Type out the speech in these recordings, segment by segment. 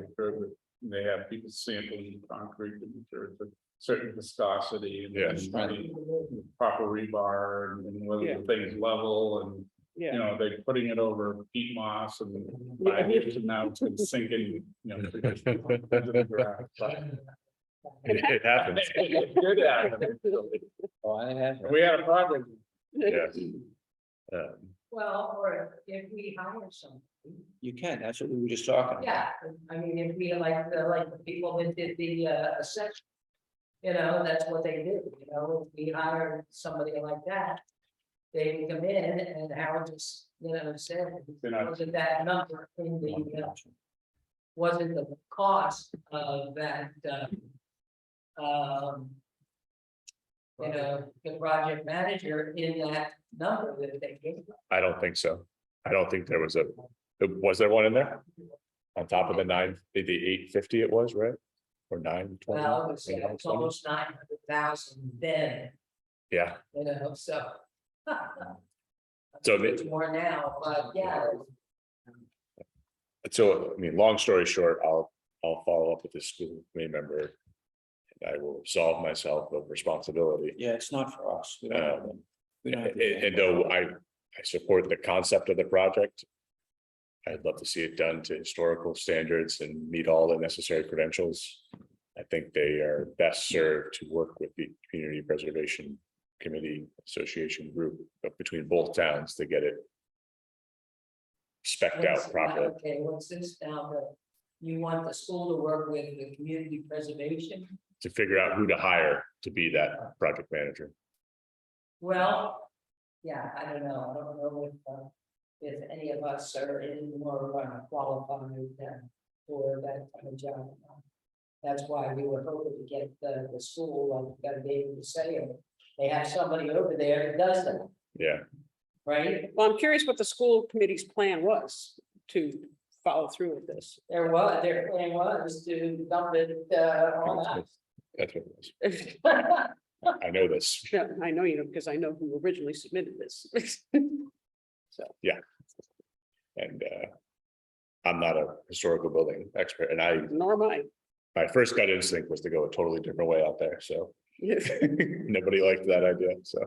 occur with, they have people sampling concrete and there's a certain viscosity and. Yes. and Proper rebar and- and whether Yeah. the thing's level and, you yeah. know, they're putting it over peat moss and five years from now it's gonna sink in, you know. because it's under the ground, but- It happens, Good at it. Oh, I have. We had a project yes. Uh, Well, or if we hire some, You can, that's what we were just talking. about. yeah, I mean, if we like the, like the people that did the uh assessment. You know, that's what they do, you know, if we hire somebody like that. They would come in and Howard just, you know, said, They're not- wasn't that number in the, uh, wasn't the cost of that, uh. Um. You know, the project manager in that number that they gave. I don't think so. I don't think there was a, was there one in there? On top of the nine, the eight fifty it was, right? Or nine twenty? Well, it was it was 920? almost nine hundred thousand then, Yeah, you know, so. So It's it- More now, but yeah, so, I mean, long story short, I'll, I'll follow up with the school committee member. and I will absolve myself of responsibility. Um, Yeah, it's not for us. We don't have them. We don't have Uh, And, to- and though I, I support the concept of the project. I'd love to see it done to historical standards and meet all the necessary credentials. I think they are best served to work with the Community Preservation Committee Association group, but between both towns to get it. Specked out what's- properly. Okay, what's this now, the, you want the school to work with the community preservation? to figure out who to hire to be that project manager. Well, yeah, I don't know, I don't know if, uh, if any of us are any more uh, qualified than for that kind of job. That's why we were hoping to get the, the school, like, got to be able to say, uh, they have somebody over there that does that, Yeah, right? Well, I'm curious what the school committee's plan was to follow through with this. There was, their plan was to dump it, uh, on that's what it was. us. I know this. Yeah, I know you know, because I know who originally submitted this. And uh. I'm not a historical building expert and I, Nor am I. my first gut instinct was to go a totally different way out there, so. Nobody liked that idea, so.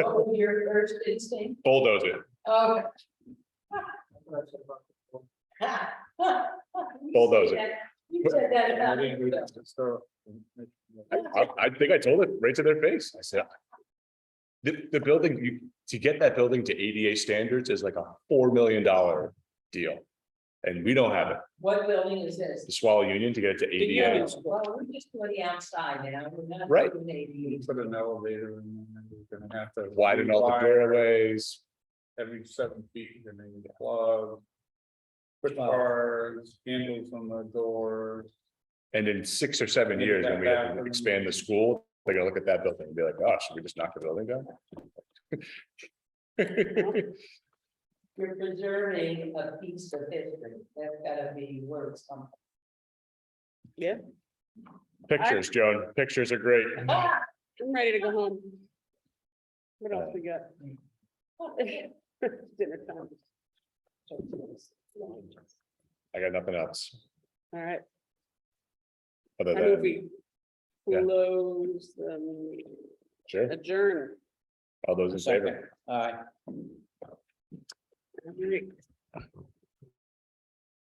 What was your first instinct? Bulldoze it, Oh. Bulldoze it. You said that about I didn't read yourself. it, so- I, I- I think I told it right to their face, I said. The, the building, you, to get that building to ADA standards is like a four million dollar deal. And we don't have it, What building is this? the Swallow Union to get it to ADA, Well, we're just doing the outside now. We're not uh, Right. doing You ADU. put an elevator in, there, you're gonna have to. widen all the rewire doorways, Every seven feet, you're gonna need a plug. Push Wow. bars, handles on the doors. And in six or seven Maybe years, that when we have to bathroom- expand the school, they're gonna look at that building and be like, oh, should we just knock the building down? You're preserving a piece of history. That's gotta be worth something. Pictures, Joan, pictures are great. Ah, I'm ready to go home. What else we got? Dinner time. All I got nothing else. right, Other I move than, we Yeah. close the meeting. sure, adjourn. all those in favor? All right. All right.